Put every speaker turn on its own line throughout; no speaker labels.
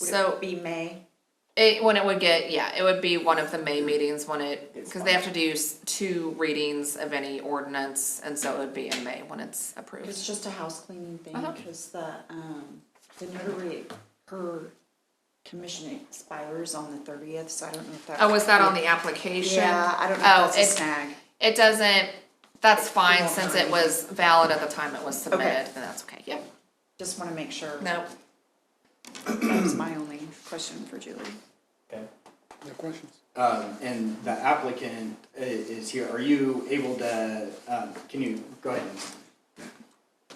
Would
So-
it be May?
It, when it would get, yeah, it would be one of the May meetings when it, because they have to do s- two readings of any ordinance, and so it would be in May when it's approved.
It's just a house cleaning thing,
Uh-huh.
because the, um, the notary, her commission expires on the thirtieth, so I don't know if that.
Oh, was that on the application?
Yeah, I don't know
Oh,
if that's a
it-
snag.
It doesn't, that's fine,
won't
since
hurt
it
me.
was valid at the time it was submitted, then that's okay, yep,
Just wanna make sure.
no,
That was my only question for Julie.
Okay.
No questions?
Um, and the applicant i- is here, are you able to, um, can you, go ahead and,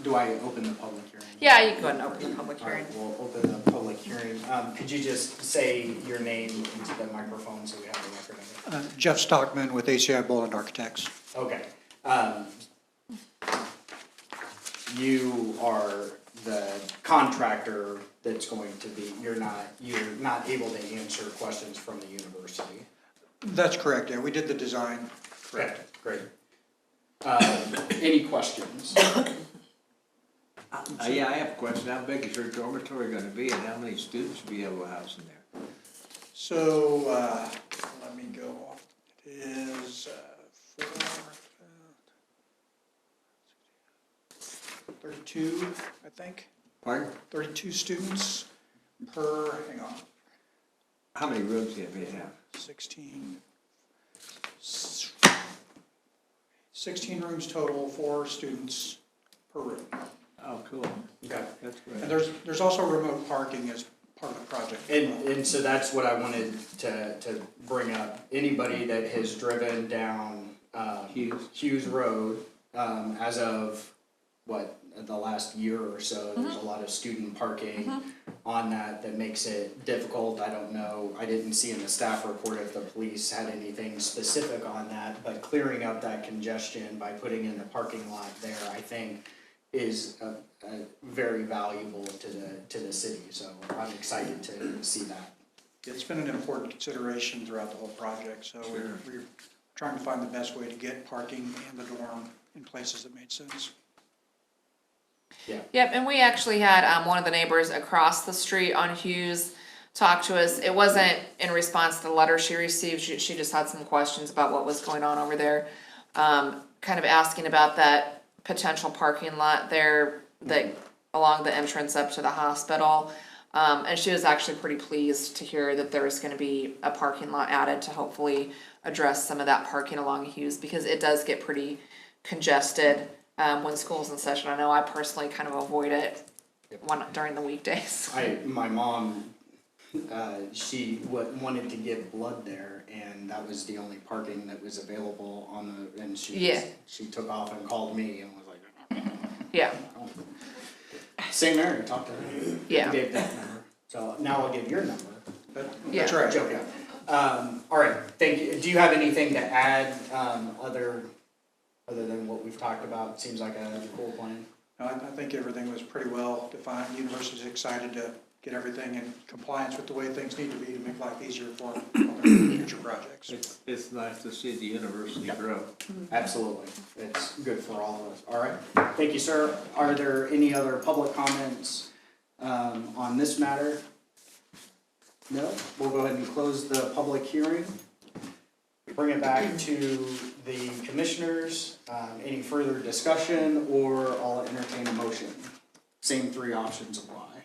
do I open the public hearing?
yeah, you can go ahead and open the public hearing.
Alright, we'll open the public hearing, um, could you just say your name into the microphone so we have a record of
Uh, Jeff Stockman with ACI Boland Architects.
it? Okay, um, you are the contractor that's going to be, you're not, you're not able to answer questions from the university.
That's correct, yeah, we did the design.
Correct. Great. Um, Any questions?
Uh, yeah, I have a question. How big is your dormitory gonna be and how many students will be able to house in there?
So, uh, let me go off, it is, uh, four, uh, thirty-two, I think,
Pardon?
thirty-two students per, hang on,
How many rooms do you have?
sixteen. s- Sixteen rooms total, four students per room.
Oh, cool.
Okay.
That's
And
great.
there's, there's also remote parking as part of the project.
And, and so that's what I wanted to, to bring up. Anybody that has driven down, um,
Hughes.
Hughes Road, um, as of, what, the last year or so, there's a lot of student parking on that that makes it difficult. I don't know, I didn't see in the staff report if the police had anything specific on that, but clearing up that congestion by putting in the parking lot there, I think, is, uh, uh, very valuable to the, to the city, so I'm excited to see that.
It's been an important consideration throughout the whole project, so we're, we're trying to find the best way to get parking and the dorm in places that made sense.
Yep, and we actually had um, one of the neighbors across the street on Hughes talk to us. It wasn't in response to the letter she received. She, she just had some questions about what was going on over there. Um, kind of asking about that potential parking lot there that along the entrance up to the hospital. Um, and she was actually pretty pleased to hear that there was going to be a parking lot added to hopefully address some of that parking along Hughes because it does get pretty congested um, when school's in session. I know I personally kind of avoid it when, during the weekdays.
I my mom, uh, she w- wanted to give blood there, and that was the only parking that was available on the. And she
Yeah.
she took off and called me and was like,
Yeah,
oh. "St. Mary, talk to her."
Yeah.
Gave that number. So now I'll give your number.
But
Yeah.
that's right.
Joke out. Um, all right. Thank you. Do you have anything to add? Um, other other than what we've talked about, seems like a cool plan.
No, I, I think everything was pretty well defined. University's excited to get everything in compliance with the way things need to be to make life easier for other future projects.
It's, it's nice to see the university grow.
Absolutely, it's good for all of us, all right, thank you, sir. Are there any other public comments um, on this matter? No, we'll go ahead and close the public hearing. Bring it back to the commissioners, Um, any further discussion, or I'll entertain a motion. Same three options apply.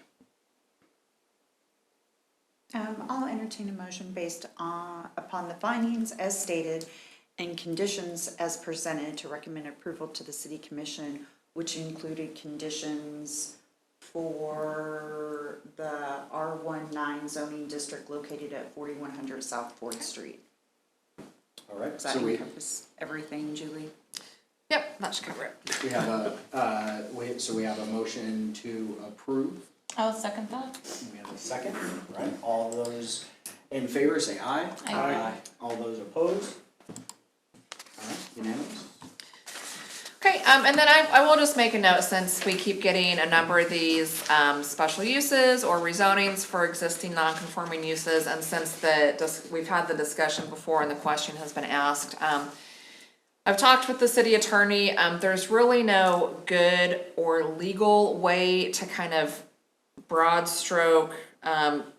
Um, I'll entertain a motion based on, upon the findings as stated and conditions as presented to recommend approval to the city commission, which included conditions for the R one nine zoning district located at forty-one hundred South Fourth Street.
All right,
Does that
so we,
encompass everything, Julie?
yep, that should cover it.
we have a, uh, we, so we have a motion to approve.
I'll second that.
We have a second, right? All those in favor say aye.
Aye.
All those opposed? All right, unanimous?
Okay, um, and then I, I will just make a note since we keep getting a number of these um, special uses or rezonings for existing non-conforming uses, and since the dis- we've had the discussion before and the question has been asked, um, I've talked with the city attorney. Um, there's really no good or legal way to kind of broad stroke um,